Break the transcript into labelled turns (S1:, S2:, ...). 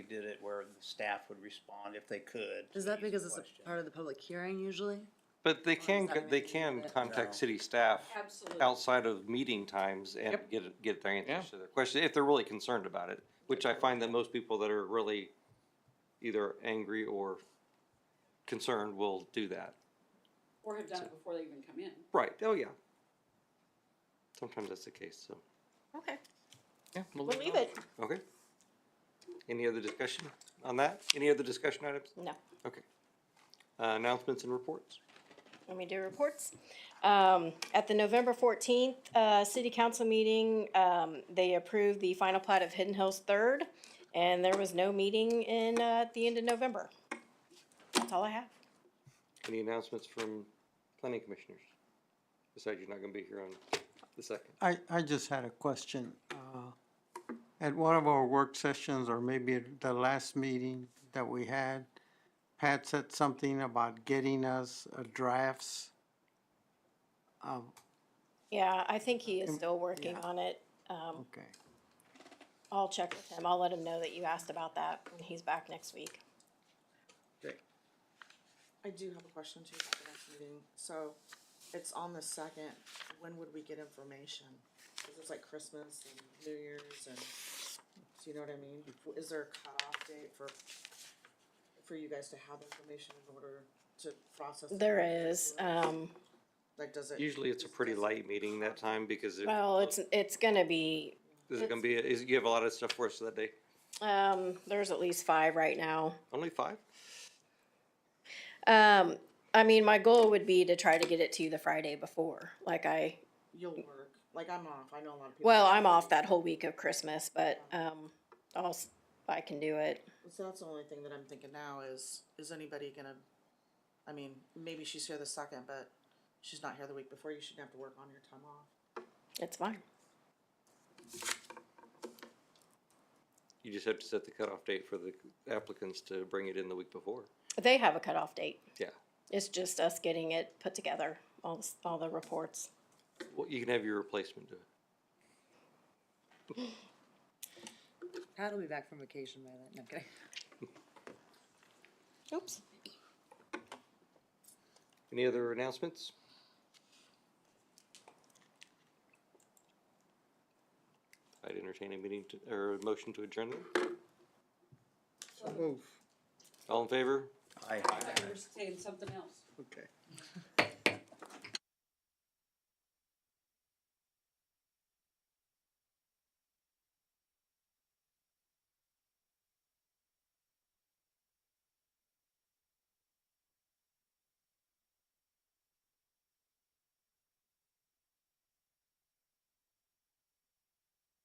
S1: did it where the staff would respond if they could.
S2: Is that because it's a part of the public hearing usually?
S3: But they can,
S2: that
S3: they
S2: mean?
S3: can
S2: Yeah.
S3: contact city staff
S4: Absolutely.
S3: outside of meeting times and
S5: Yep.
S3: get, get their
S5: Yeah.
S3: answers to their questions, if they're really concerned about it, which I find that most people that are really either angry or concerned will do that.
S4: Or have done it before they even come in.
S3: Right, oh yeah. Sometimes that's the case, so,
S6: Okay,
S5: Yeah,
S6: we'll leave it.
S3: okay. Any other discussion on that? Any other discussion items?
S6: No,
S3: Okay. Uh, announcements and reports?
S6: let me do reports. Um, at the November fourteenth, uh, city council meeting, um, they approved the final plat of Hidden Hills Third, and there was no meeting in, uh, at the end of November. That's all I have.
S3: Any announcements from planning commissioners? Besides, you're not gonna be here on the second.
S7: I, I just had a question. Uh, At one of our work sessions, or maybe at the last meeting that we had, Pat said something about getting us uh, drafts of,
S6: Yeah, I think he is still working on it. Um,
S7: okay.
S6: I'll check with him. I'll let him know that you asked about that when he's back next week.
S8: I do have a question too about the next meeting. So it's on the second, when would we get information? Is this like Christmas and New Year's and, do you know what I mean? Is there a cutoff date for, for you guys to have information in order to process? it?
S6: There is, um,
S8: Like, does it?
S3: Usually it's a pretty light meeting that time because it,
S6: well, it's, it's gonna be,
S3: is it gonna be, is, you have a lot of stuff for us that day?
S6: um, there's at least five right now.
S3: Only five?
S6: Um, I mean, my goal would be to try to get it to you the Friday before, like I,
S8: You'll work. Like, I'm off. I know a lot of people.
S6: well, I'm off that whole week of Christmas, but, um, I'll, s- I can do it.
S8: So that's the only thing that I'm thinking now is, is anybody gonna, I mean, maybe she's here the second, but she's not here the week before. You shouldn't have to work on your time off.
S6: It's fine.
S3: You just have to set the cutoff date for the applicants to bring it in the week before.
S6: They have a cutoff date.
S3: Yeah.
S6: It's just us getting it put together, all, s- all the reports.
S3: Well, you can have your replacement do it.
S2: Pat will be back from vacation by then, no, I'm kidding.
S6: Oops.
S3: Any other announcements? I'd entertain a meeting to, or a motion to adjourn. then.
S7: Move,
S3: All in favor?
S1: I,
S4: I was saying something else.
S7: okay.